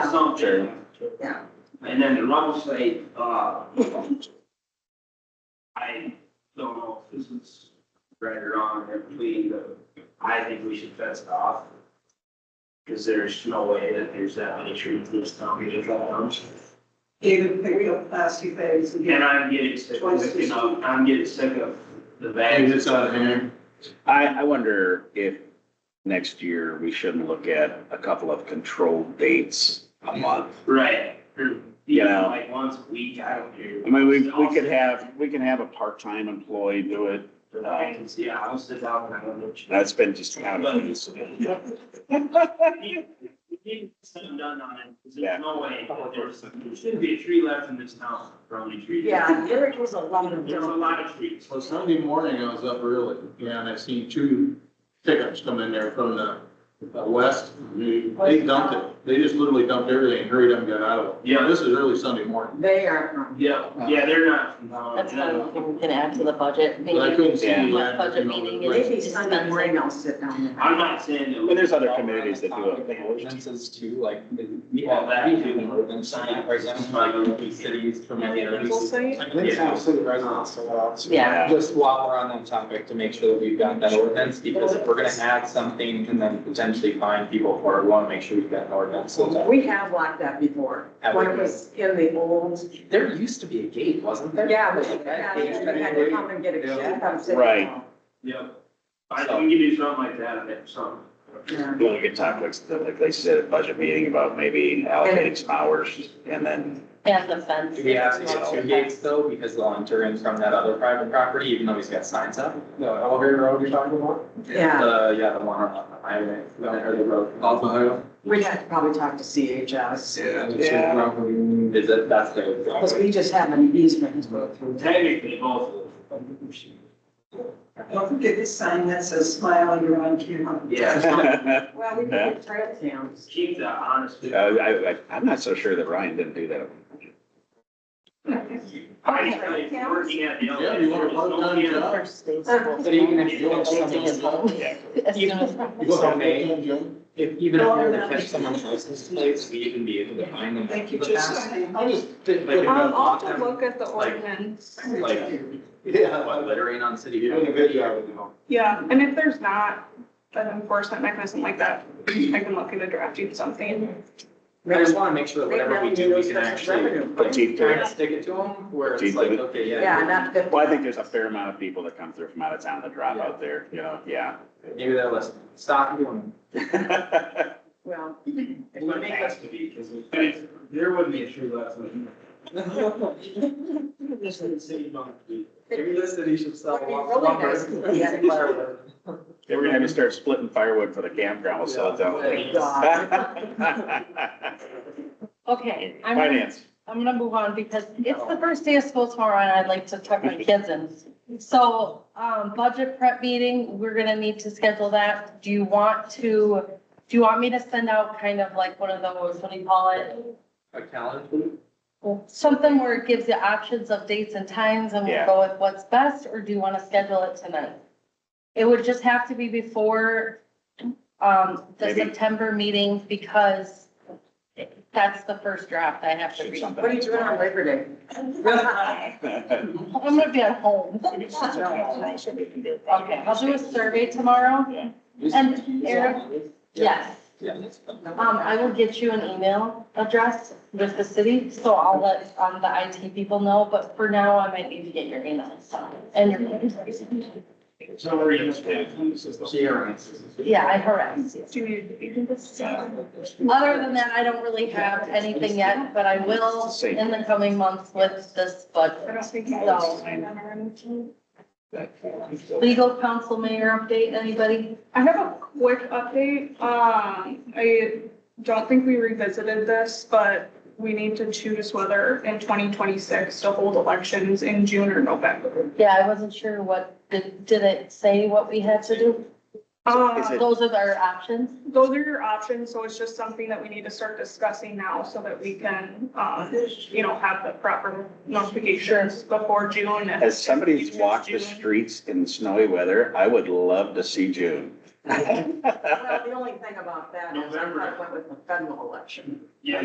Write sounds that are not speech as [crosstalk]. something. Yeah. And then the rubble site, uh, I don't know if this is right or wrong, if we, uh, I think we should fence it off. Cause there's no way that there's that many trees in this town, we just got them. David picked up plastic bags and And I'm getting sick of, it, you know, I'm getting sick of the bags. it's out of hand. I, I wonder if next year we shouldn't look at a couple of controlled dates a month. Right, or, you Yeah. know, like once a week, I don't care. I mean, we, we could have, we can have a part-time employee do it. I can see a house that's out and I don't know. That's been just kind of. need need something done on it, 'cause there's no way, that there's, there shouldn't be a tree left in this town, probably trees. Yeah, there was a lot of There's a them. lot of trees. Well, Sunday morning, I was up early, yeah, and I seen two pickups come in there from the, the west. They dumped it, they just literally dumped everything, hurried up and got out of it. Yeah. This is early Sunday morning, They are from. Yeah, yeah, they're not from town. That's not, we can add to the budget. but I couldn't see. Yeah. the land, Budget you know, meeting like- is- Maybe Sunday morning I'll sit down I'm not saying that. But there's other communities that do it. Ordinances too, like, we Well, that- have, we do an ordinance sign, for example, like, in the cities, communities. there. I think it's not city residents, so, uh, so Yeah. Just while we're on that topic, to make sure that we've got that ordinance, because if we're gonna add something and then potentially find people for it, we wanna make sure we've got an ordinance. so that- We have like that before, when it was in the old, There used to be a gate, wasn't there? yeah, we Like had, that we gate that had we- to come and get a check on sitting Right. down. Yeah. I think we can do something like that, if something. Yeah. Well, we could talk, like, like they said, at budget meeting about maybe allocating some hours and then, And the fence. Do we have to get two gates though, because they'll enter in from that other private property, even though he's got signs up? No, elevator road you're talking about? Yeah, The, yeah, the one on the highway, the the road. Off the highway. we'd have to probably talk to CHS, Yeah. Yeah. Is it, that's the. because we just have an easement to go through. Technically, both of them. Don't forget this sign that says smile and you're on camera. Yeah. [laughs] I, Well, we Yeah. can get trail cams. Keep that honest. with- Uh, I, I'm not so sure that Ryan didn't do that. I just tell you, working at the. Yeah, you want a part-time job? But even if you don't Yeah. [laughs] As soon as. You want So a may- full-time job? If, even if we were to catch someone's license plates, we even be able to find them. Thank you, But just that's- signing. I just didn't. like, Um, I'll block have to them, look at the like- ordinance. Like, Yeah. by littering on city. You're doing a good job, you know. Yeah, and if there's not an enforcement mechanism like that, I can look into drafting something. I just wanna make sure that whatever we do, we can actually But actually. Keith did it. kind of stick it to them, where it's Keep like, it. okay, yeah. Yeah, not that. Well, I think there's a fair amount of people that come through from out of town that drop out there, you know, yeah. [laughs] Maybe that was, stop doing. Well, It would have to [laughs] be, because there wouldn't be a tree left. in it. Just in the city, not the- Maybe the city should sell. Would be really nice if we [laughs] had a- Fireworks. They were gonna have you start splitting firewood for the campground, we'll sell it [laughs] Oh thank down. God. Okay, I'm, gonna- Finance, I'm gonna move on because it's the first day of school tomorrow and I'd like to tuck my kids in. So, um, budget prep meeting, we're gonna need to schedule that. Do you want to, do you want me to send out kind of like one of those, what do you call it? A calendar. Something where it gives you options of dates and times and Yeah. we'll go with what's best, or do you want to schedule it tonight? It would just have to be before, um, the Maybe. September meeting because that's the first draft I have to shoot read. something. What are you doing [laughs] on Labor Day? [laughs] I'm gonna be at home. We can sit down, I'll send it to you. Okay, I'll do a survey tomorrow. Yeah. And Eric- Yes. Yeah, that's fine. Um, I will get you an email address with the city, so I'll let, um, the IT people know, but for now, I might need to get your email, so, and your. So we're gonna stay. She arranges. Yeah, I harass you. Do you need to do this? Other than that, I don't really have anything yet, but I will in the coming months with this I budget. don't think. I No. would. Legal counsel mayor update, anybody? I have a quick update. Um, I don't think we revisited this, but we need to choose whether in twenty twenty-six to hold elections in June or November. Yeah, I wasn't sure what, did, did it say what we had to do? Is Uh, it- Those are our options. those are your options, so it's just something that we need to start discussing now so that we can, um, you know, have the proper notifications before June. and- As somebody who's walked the streets in snowy weather, I would love to see June. [laughs] [laughs] Well, the only thing about that is I November. went with the federal election.